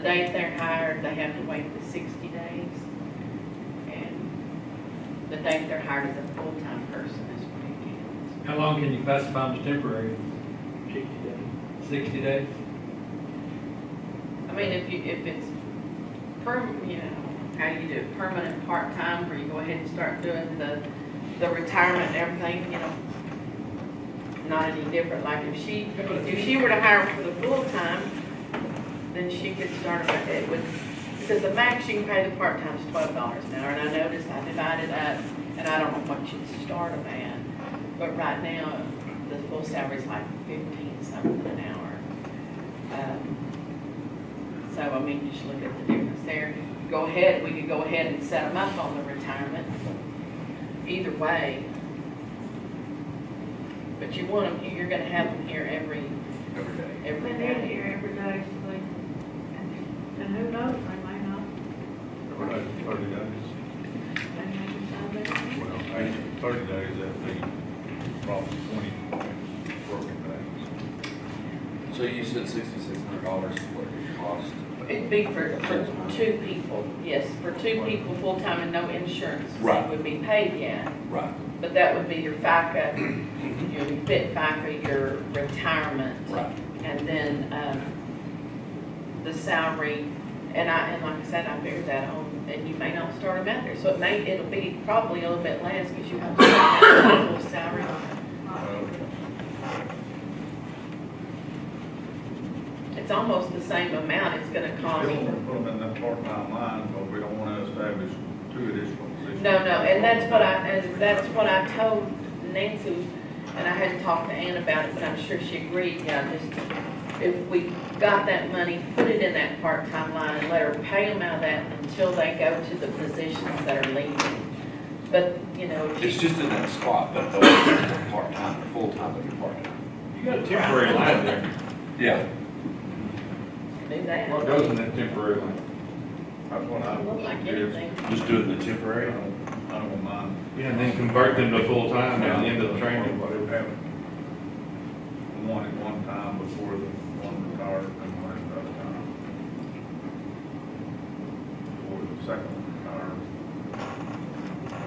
days they're hired, they have to wait the sixty days. And the date they're hired as a full-time person is when it ends. How long can you classify them as temporary? sixty days. Sixty days? I mean, if you, if it's per, you know, how you do it, permanent, part-time, where you go ahead and start doing the, the retirement and everything, you know, not any different, like if she, if she were to hire for the full-time, then she could start with it with, because the max you can pay the part-time is twelve dollars an hour, and I noticed I divided up, and I don't know what you'd start them at, but right now, the full salary's like fifteen something an hour. Um, so, I mean, you just look at the difference there. Go ahead, we could go ahead and set them up on the retirement, either way. But you want them, you're gonna have them here every, every day. every But they're day. here every day, so they, and, and who knows, they may not, What, thirty days? they may decide they don't. Well, eight- thirty days, that'd be probably twenty working days. So you said sixty-six hundred dollars is what it cost? It'd be for, for two people, yes, for two people, full-time and no insurance. so Right. it Would be paid yet, Right, but that would be your FICA, your fit FICA, your retirement. right. And then, um, the salary, and I, and like I said, I figured that on, and you may not start them out there, so it may, it'll be probably a little bit less, because you have to have a full salary. It's almost the same amount it's gonna cost. We don't want to put them in that part-time line, because we don't want to establish two additional positions. No, no, and that's what I, and that's what I told Nancy, and I hadn't talked to Ann about it, but I'm sure she agreed, yeah, just, if we got that money, put it in that part-time line, and let her pay them out of that until they go to the positions that are leaving. But, you know, It's she, just in that spot, but those are part-time, or full-time, but you're part-time. You got a temporary line there. Yeah. do that. What goes in that temporary line? That's what I Look would like suggest. anything. Just doing the I temporary? don't, I don't mind. Yeah, and then convert them to full-time at the end of the training. Whatever happened. One at one time before the one retired and one at another time. Before the second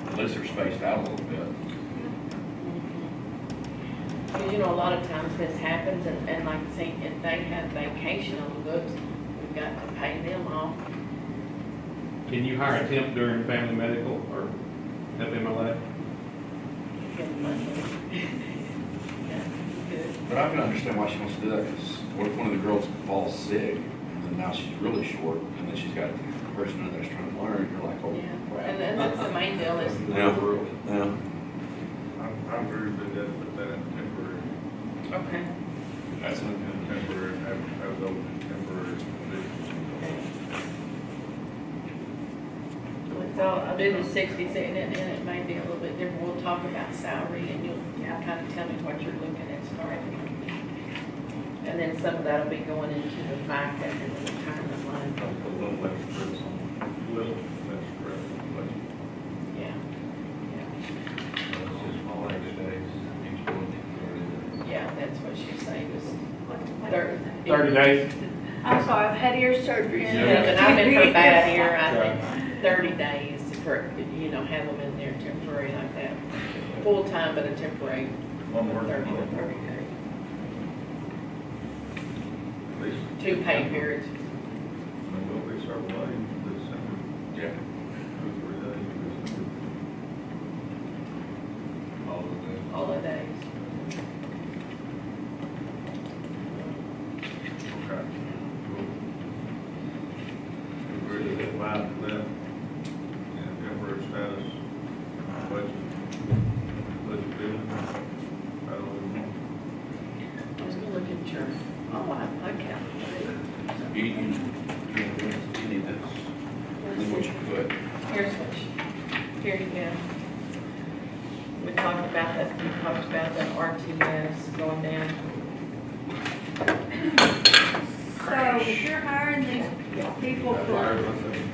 one retired. Unless they're spaced out a little bit. Because, you know, a lot of times this happens, and, and like, see, if they have vacation on the books, we've got to pay them off, Can you hire a temp during family medical or FMLA? give them money. Yeah, good. But I can understand why she wants to do that, because what if one of the girls falls sick, and then now she's really short, and then she's got a person in there that's trying to learn, you're like, Yeah, oh and crap. then that's the main deal is, Yeah. Yeah. I, I agree with that, but that in temporary, okay, That's it. in temporary, have, have those temporary okay. positions. So I'll do the sixty-six, and it, and it may be a little bit different, we'll talk about salary, and you'll, kind of tell me what you're looking at starting. And then some of that'll be going into the FICA and the retirement line, Don't put a little less stress on, it. little less stress, less, yeah. Yeah, less just all eight days, each one. Yeah, that's what she's saying, is What's the- thirty. Thirty days? I'm sorry, I've had ear surgery. Yeah, and I've been for bad here, I think, thirty days for, you know, have them in there temporary like that, full-time but a temporary One more, Thirty to one thirty more, days. at least. Two pay periods. There will be several days in December, Yeah. two, three days in December. All of them. All the days. Okay. Agree to that, why to that, and temporary status, budget, budget billing, I don't know. I was gonna look at your, oh, I, I can't. You, you, you need this, then what you put. Here's what you, here you go. We talked about that, we talked about that RTS going down. So if you're hiring these people for Fire,